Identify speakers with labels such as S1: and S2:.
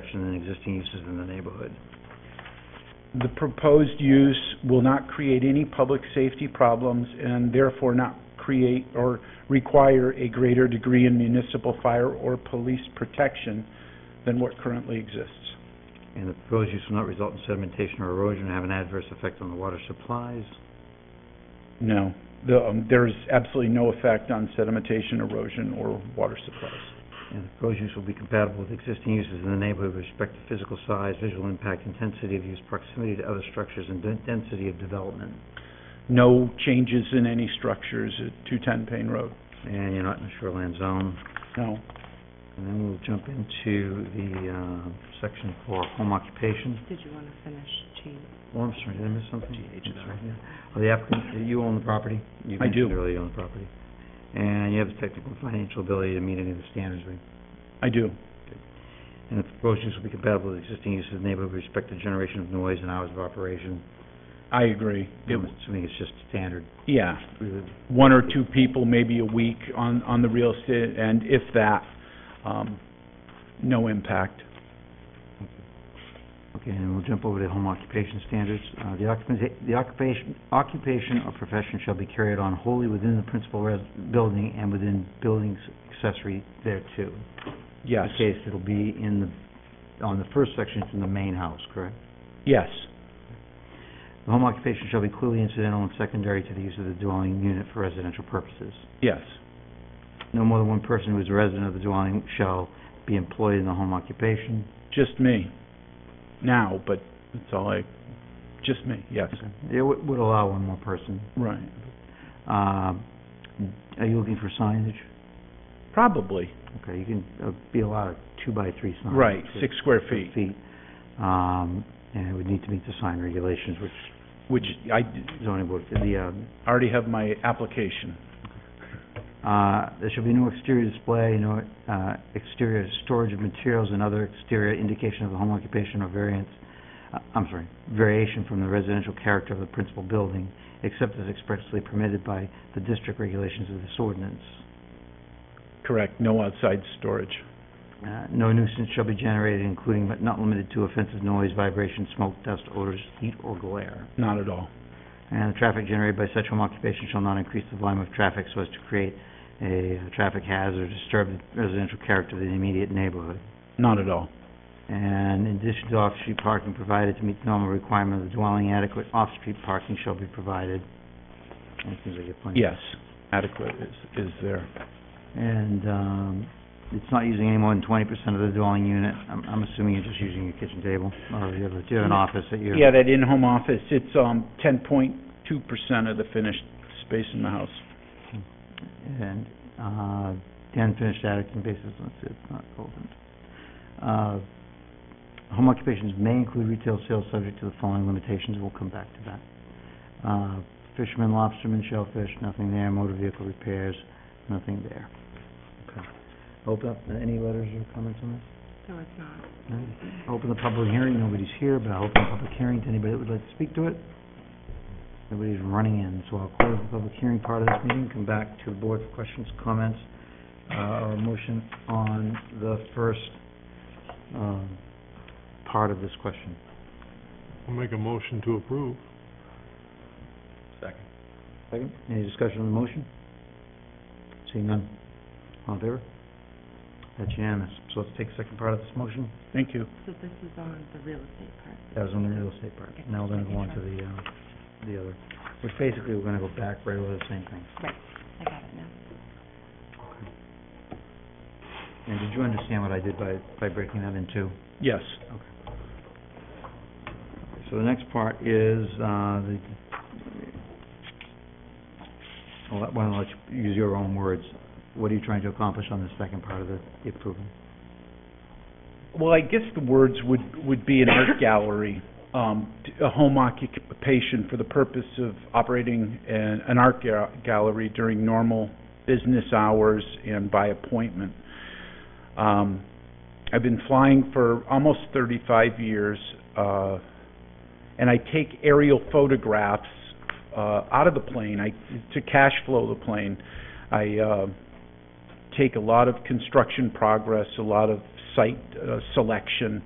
S1: reduction in existing uses in the neighborhood.
S2: The proposed use will not create any public safety problems and therefore not create or require a greater degree in municipal fire or police protection than what currently exists.
S1: And the proposed use will not result in sedimentation or erosion or have an adverse effect on the water supplies.
S2: No, the, um, there is absolutely no effect on sedimentation, erosion, or water supplies.
S1: And the proposed use will be compatible with existing uses in the neighborhood with respect to physical size, visual impact, intensity of use, proximity to other structures, and den- density of development.
S2: No changes in any structures at 210 Payne Road,
S1: And you're not in a shoreline zone.
S2: no.
S1: And then we'll jump into the, uh, section for home occupation.
S3: Did you want to finish, Gene?
S1: Oh, I'm sorry, did I miss something? I'm sorry, yeah. Oh, the applicant, you own the property? You
S2: I do.
S1: mentioned earlier you own the property. And you have the technical and financial ability to meet any of the standards, right?
S2: I do,
S1: And the proposed use will be compatible with existing uses in the neighborhood with respect to generation of noise and hours of operation.
S2: I agree. It,
S1: I'm assuming it's just standard.
S2: yeah,
S1: Really,
S2: one or two people, maybe a week on, on the real estate, and if that, um, no impact.
S1: Okay, and we'll jump over to home occupation standards. Uh, the occupation, the occupation, occupation or profession shall be carried on wholly within the principal res- building and within buildings accessory thereto.
S2: Yes,
S1: the case, it'll be in the, on the first section, it's in the main house, correct?
S2: yes,
S1: The home occupation shall be clearly incidental and secondary to the use of the dwelling unit for residential purposes.
S2: yes,
S1: No more than one person who is a resident of the dwelling shall be employed in the home occupation.
S2: just me. Now, but that's all I, just me, yes,
S1: It would would allow one more person.
S2: right,
S1: Uh, Are you looking for signage?
S2: probably,
S1: Okay, you can uh, be allowed a two-by-three sign.
S2: right,
S1: which is
S2: six square feet.
S1: Feet. Um, And it would need to meet the sign regulations, which
S2: which I
S1: zoning board, the uh,
S2: already have my application.
S1: Uh, There shall be no exterior display, no uh, exterior storage of materials and other exterior indication of the home occupation or variance, uh, I'm sorry, variation from the residential character of the principal building, except as expressly permitted by the district regulations of this ordinance.
S2: Correct, no outside storage.
S1: Uh, No nuisance shall be generated, including but not limited to offensive noise, vibration, smoke, dust, odors, heat, or glare.
S2: Not at all.
S1: And the traffic generated by such home occupation shall not increase the volume of traffic so as to create a uh, traffic hazard or disturb the residential character of the immediate neighborhood.
S2: Not at all.
S1: And in addition to off-street parking provided to meet the normal requirement of the dwelling, adequate off-street parking shall be provided. And it seems like you're plenty.
S2: Yes, adequate is, is there.
S1: And, um, it's not using any more than twenty percent of the dwelling unit. I'm, I'm assuming you're just using your kitchen table, or you have, a- you have an office that you're...
S2: Yeah, that in-home office, it's, um, ten point two percent of the finished space in the house.
S1: And, uh, the unfinished attic and basement, let's see, it's not opened. Uh, home occupations may include retail sales subject to the following limitations, we'll come back to that. Uh, fishermen, lobstermen, shellfish, nothing there, motor vehicle repairs, nothing there. Okay. Open up, any letters or comments on this?
S3: No, it's not.
S1: No? Open the public hearing, nobody's here, but I'll open the public hearing to anybody that would like to speak to it. Nobody's running in, so I'll close the public hearing part of this meeting, come back to the board for questions, comments, uh, or a motion on the first, um, part of this question.
S4: I'll make a motion to approve.
S5: Second.
S1: Second. Any discussion on the motion? Seeing none. All in favor? That's unanimous. So let's take the second part of this motion.
S2: Thank you.
S3: So this is on the real estate part.
S1: That was on the real estate part. Now we're gonna go on to the, uh, the other, which basically we're gonna go back right over the same thing.
S3: I got it now.
S1: And did you understand what I did by, by breaking that in two?
S2: Yes,
S1: So the next part is, uh, the, I'll let- why don't I let you use your own words? What are you trying to accomplish on the second part of the the approval?
S2: well, I guess the words would, would be an art gallery, um, t- a home occupation for the purpose of operating an, an art ga- gallery during normal business hours and by appointment. Um, I've been flying for almost thirty-five years, uh, and I take aerial photographs, uh, out of the plane, I, to cash flow the plane. I, uh, take a lot of construction progress, a lot of site uh, selection,